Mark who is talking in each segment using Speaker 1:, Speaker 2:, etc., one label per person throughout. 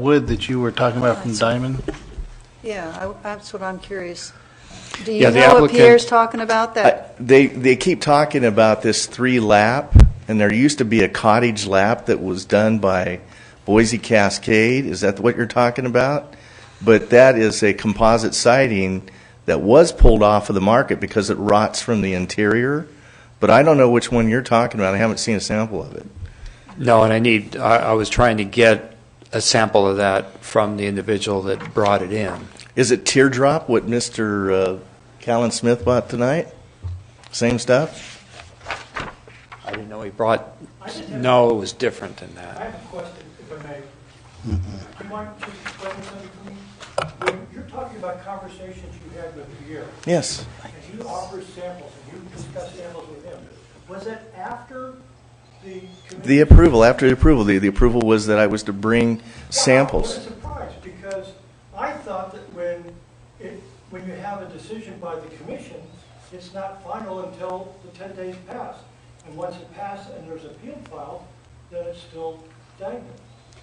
Speaker 1: wood that you were talking about from Diamond?
Speaker 2: Yeah, I- that's what I'm curious. Do
Speaker 3: Yeah,
Speaker 2: you know
Speaker 3: the
Speaker 2: what
Speaker 3: applicant-
Speaker 2: Pierre's talking about,
Speaker 3: I-
Speaker 2: that
Speaker 3: They, they keep talking about this three lap, and there used to be a cottage lap that was done by Boise Cascade. Is that what you're talking about? But that is a composite siding that was pulled off of the market because it rots from the interior. But I don't know which one you're talking about. I haven't seen a sample of it.
Speaker 4: No, and I need, I, I was trying to get a sample of that from the individual that brought it in.
Speaker 3: Is it teardrop, what Mr. uh, Callan Smith bought tonight? Same stuff?
Speaker 4: I didn't know he brought, no, it was different than
Speaker 5: I
Speaker 4: that.
Speaker 5: have a question, if I may.
Speaker 3: Mm-hmm.
Speaker 5: Do you mind just explaining something to me? When you're talking about conversations you had with Pierre,
Speaker 3: Yes.
Speaker 5: and you offered samples, and you discussed samples with him, was that after the committee?
Speaker 3: The approval, after the approval, the, the approval was that I was to bring
Speaker 5: Wow,
Speaker 3: samples.
Speaker 5: What a surprise, because I thought that when it, when you have a decision by the commission, it's not final until the ten days pass. And once it passes and there's appeal filed, then it's still dangling.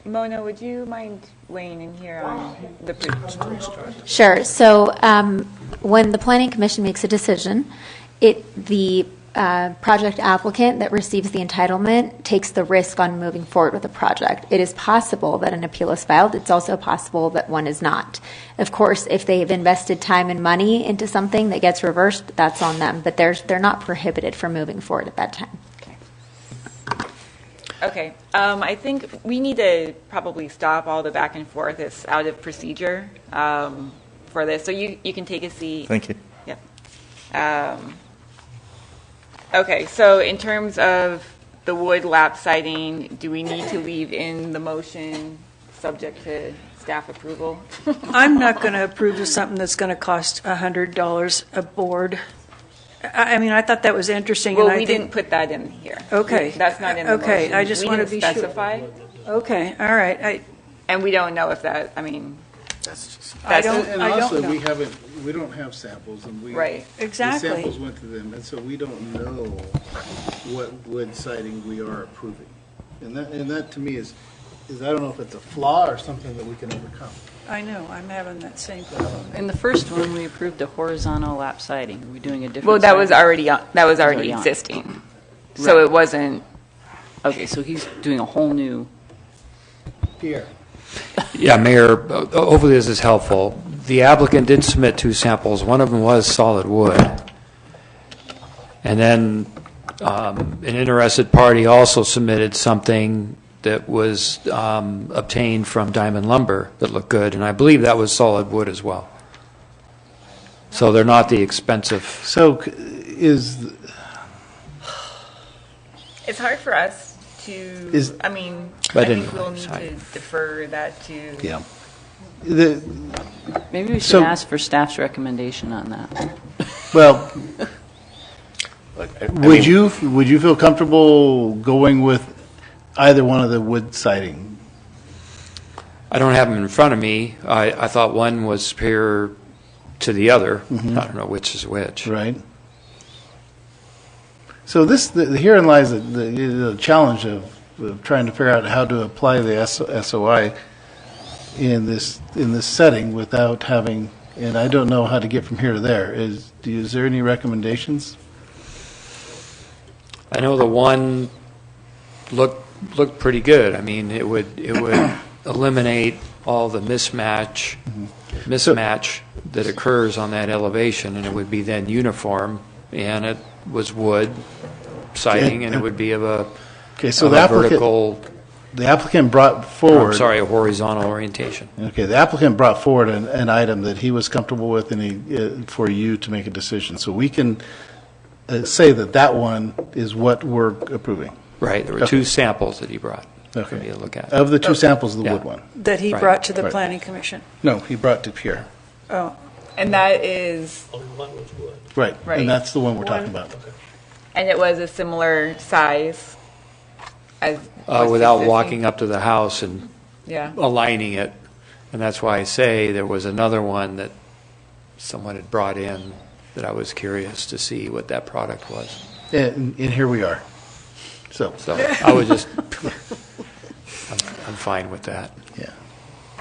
Speaker 6: Mona, would you mind weighing in here on the preschool story?
Speaker 7: Sure. So um, when the planning commission makes a decision, it, the uh, project applicant that receives the entitlement takes the risk on moving forward with the project. It is possible that an appeal is filed. It's also possible that one is not. Of course, if they have invested time and money into something that gets reversed, that's on them. But there's, they're not prohibited from moving forward at that time.
Speaker 6: Okay, um, I think we need to probably stop all the back and forth. It's out of procedure, um, for this. So you, you can take a seat.
Speaker 3: Thank you.
Speaker 6: Yep. Um, Okay, so in terms of the wood lap siding, do we need to leave in the motion subject to staff approval?
Speaker 8: I'm not going to approve of something that's going to cost $100 a board. I, I mean, I thought that was interesting. and
Speaker 6: Well,
Speaker 8: I
Speaker 6: we didn't put that in here.
Speaker 8: Okay.
Speaker 6: That's not in the motion.
Speaker 8: Okay, I just wanna
Speaker 6: We
Speaker 8: be
Speaker 6: didn't
Speaker 8: sure.
Speaker 6: specify,
Speaker 8: Okay, all right. I,
Speaker 6: and we don't know if that, I mean,
Speaker 8: I
Speaker 6: That's-
Speaker 8: don't,
Speaker 1: And
Speaker 8: I don't
Speaker 1: also, we
Speaker 8: know.
Speaker 1: haven't, we don't have samples, and we.
Speaker 6: Right.
Speaker 8: Exactly.
Speaker 1: The samples went to them, and so we don't know what wood siding we are approving. And that, and that to me is, is I don't know if it's a flaw or something that we can overcome.
Speaker 8: I know, I'm having that same problem.
Speaker 9: In the first one, we approved a horizontal lap siding. We're doing a different.
Speaker 6: well, that was
Speaker 9: siding.
Speaker 6: already, on- that was already
Speaker 9: already on.
Speaker 6: existing. So
Speaker 9: Right.
Speaker 6: it wasn't,
Speaker 9: Okay, so he's doing a whole new.
Speaker 1: Pierre.
Speaker 4: Yeah, Mayor, uh, hopefully this is helpful. The applicant did submit two samples. One of them was solid wood. And then um, an interested party also submitted something that was um, obtained from Diamond Lumber that looked good, and I believe that was solid wood as well. So they're not the expensive,
Speaker 1: So c- is,
Speaker 6: it's hard for us
Speaker 1: Is-
Speaker 6: to, I mean,
Speaker 4: But
Speaker 6: I think
Speaker 4: anyway,
Speaker 6: we'll need
Speaker 4: sorry.
Speaker 6: to defer that to.
Speaker 3: Yeah.
Speaker 1: the,
Speaker 9: Maybe we
Speaker 1: So-
Speaker 9: should ask for staff's recommendation on that.
Speaker 1: well,
Speaker 3: I- I mean-
Speaker 1: would you, would you feel comfortable going with either one of the wood siding?
Speaker 4: I don't have them in front of me. I, I thought one was superior to the other. I
Speaker 1: Mm-hmm.
Speaker 4: don't know which is which.
Speaker 1: Right. So this, the, herein lies the, the, the challenge of, of trying to figure out how to apply the S, SOI in this in this setting without having. And I don't know how to get from here to there. Is do you- is there any recommendations?
Speaker 4: I know the one looked, looked pretty good. I mean, it would, it would eliminate all the mismatch,
Speaker 1: Mm-hmm.
Speaker 4: mismatch that occurs on that elevation, and it would be then uniform, and it was wood siding, and it would be of a,
Speaker 1: Okay, so
Speaker 4: of
Speaker 1: the
Speaker 4: a
Speaker 1: applicant
Speaker 4: vertical,
Speaker 1: the applicant brought
Speaker 4: I'm
Speaker 1: forward.
Speaker 4: sorry, a horizontal orientation.
Speaker 1: Okay, the applicant brought forward an, an item that he was comfortable with and he, uh, for you to make a decision. So we can uh, say that that one is what we're approving.
Speaker 4: Right, there were
Speaker 1: Okay.
Speaker 4: two samples that he brought for
Speaker 1: Okay. Uh,
Speaker 4: me to look at.
Speaker 1: Of the two samples, the
Speaker 4: Yeah.
Speaker 1: wood one.
Speaker 8: That he
Speaker 4: Right.
Speaker 8: brought to the
Speaker 1: Right.
Speaker 8: planning commission.
Speaker 1: No, he brought to Pierre.
Speaker 8: Oh,
Speaker 6: And that is
Speaker 1: Right.
Speaker 6: Right.
Speaker 1: And that's the one we're talking about.
Speaker 6: And it was a similar size as.
Speaker 4: Uh, without walking up to the house and
Speaker 6: Yeah.
Speaker 4: aligning it. And that's why I say there was another one that someone had brought in that I was curious to see what that product was.
Speaker 1: And, and here we are. So,
Speaker 4: So I was just, I'm, I'm fine with that.
Speaker 1: yeah.